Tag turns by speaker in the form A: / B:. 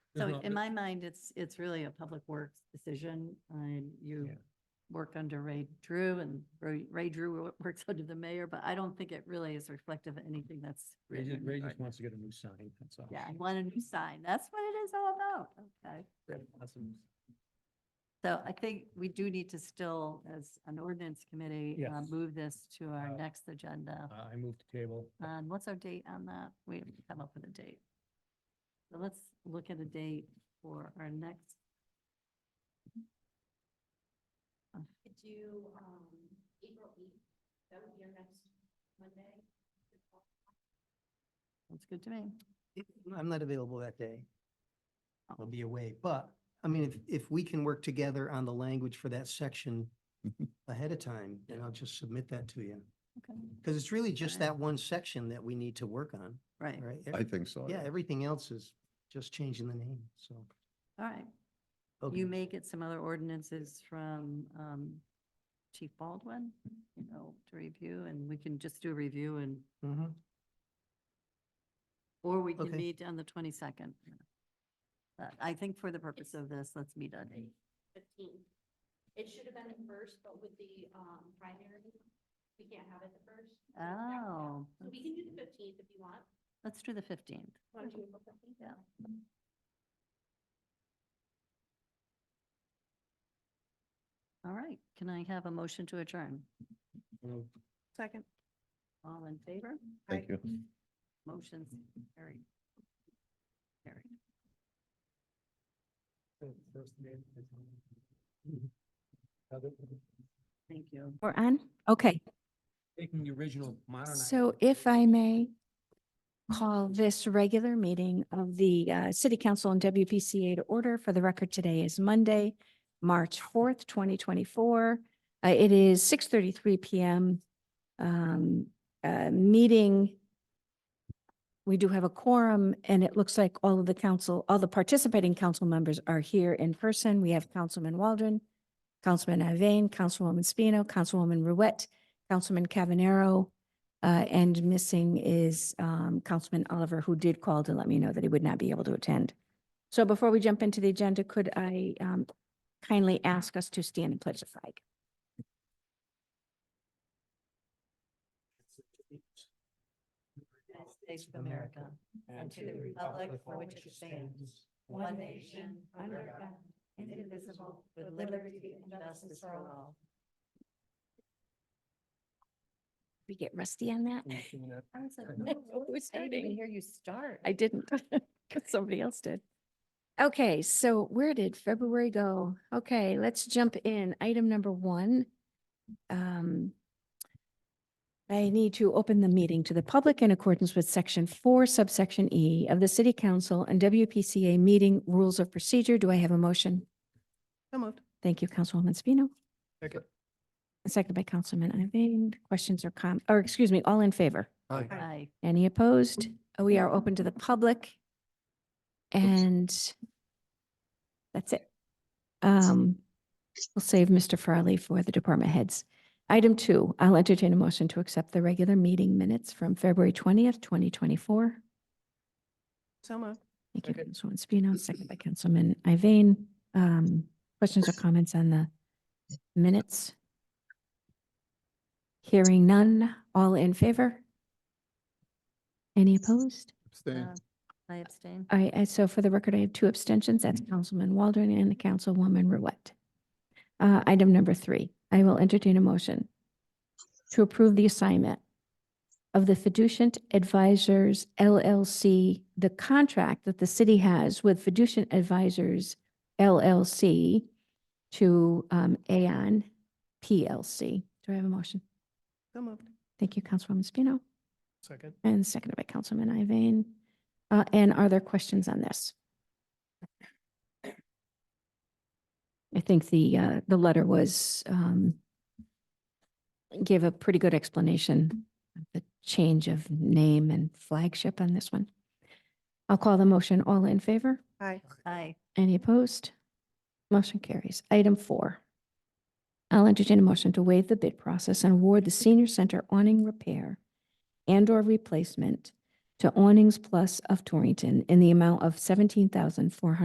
A: There's
B: So
A: not
B: in
A: been-
B: my mind, it's, it's really a public works decision. And you
A: Yeah.
B: work under Ray Drew and Ray Ray Drew wo- works under the mayor, but I don't think it really is reflective of anything that's
A: Ray
B: written.
A: just,
B: in
A: Ray
B: regard-
A: just wants to get a new sign, that's all.
B: Yeah, I want a new sign. That's what it is all about. Okay.
A: Awesome.
B: So I think we do need to still, as an ordinance committee, uh,
A: Yes.
B: move this to our
A: Uh,
B: next agenda.
A: Uh, I moved the table.
B: And Um, what's our date on that? We have to come up with a date. So let's look at a date for our next.
C: Could do, um, April eighth, that would be our next Monday.
B: That's good to me.
D: I'm not available that day. I'll be away, but, I mean, if, if we can work together on the language for that section ahead of time, then I'll just submit that to you.
B: Okay.
D: Because it's really just
B: Alright.
D: that one section that we need to work on,
B: Right.
D: right?
E: I
D: Every-
E: think so.
D: Yeah, everything else is just changing the name, so.
B: All right.
D: okay.
B: You may get some other ordinances from um, Chief Baldwin, you know, to review, and we can just do a review and,
D: Mhm.
B: or we can
D: Okay.
B: meet on the 22nd. But I think for the purpose of this, let's meet on eight.
C: Fifteenth. It should have been the first, but with the, um, primary, we can't have it the first. so it's backed up.
B: Oh.
C: So we can do the fifteenth if you want.
B: Let's do the 15th.
C: Want to do April 15th?
B: Yeah. All right, can I have a motion to adjourn?
A: Moved.
B: Second. All in favor?
E: Thank you.
B: Motion's carried. Carried.
A: First name is- Heather,
B: Thank you.
F: We're on? Okay,
A: Taking the original modern.
F: so if I may call this regular meeting of the uh, City Council and WPCA to order for the record today is Monday, March fourth, twenty twenty-four. Uh, It is six thirty-three PM. Um, uh, Meeting. We do have a quorum and it looks like all of the council, all the participating council members are here in person. We have Councilman Waldron, Councilman Iveyne, Councilwoman Spino, Councilwoman Ruette, Councilman Cavanero, uh, and missing is, um, Councilman Oliver, who did call to let me know that he would not be able to attend. So before we jump into the agenda, could I, um, kindly ask us to stand and pledge the flag?
B: United States of America, and to the republic for which it stands, one nation, under God, indivisible, with liberty and justice for all.
F: We get rusty on
A: Mm.
F: that?
B: I was like,
F: We're starting.
B: hear you start.
F: I didn't, because somebody else did. Okay, so where did February go? Okay, let's jump in. Item number one. Um, I need to open the meeting to the public in accordance with section four subsection E of the city council and WPCA meeting rules of procedure. Do I have a motion?
D: So moved.
F: Thank you, Councilwoman Spino.
D: Second.
F: Seconded by Councilman Iveyne. Questions or com, or excuse me, all in favor?
B: Aye.
F: Any opposed? Uh, We are open to the public. And that's it. Um, We'll save Mr. Farley for the department heads. Item two, I'll entertain a motion to accept the regular meeting minutes from February twentieth, twenty twenty-four.
D: So moved.
F: Thank you,
D: Second.
F: Councilwoman Spino, second by Councilman Iveyne. Um, questions or comments on the minutes? Hearing none, all in favor? Any opposed?
E: Abstain.
B: Uh, I abstain.
F: I, I, so for the record, I have two abstentions. That's
D: Mm-hmm.
F: Councilman Waldron and Councilwoman Ruette. Uh, item number three, I will entertain a motion to approve the assignment of the Fiducient Advisors LLC, the contract that the city has with Fiducient Advisors LLC to, um, Aon PLC. Do I have a motion?
D: So moved.
F: Thank you, Councilwoman Spino.
A: Second.
F: And seconded by Councilman Iveyne. Uh, and are there questions on this? I think the, uh, the letter was, um, gave a pretty good explanation of the change of name and flagship on this one. I'll call the motion. All in favor?
B: Aye.
F: Any opposed? Motion carries. Item four. I'll entertain a motion to waive the bid process and award the senior center awning repair and/or replacement to Awnings Plus of Torrington in the amount of seventeen thousand four hundred.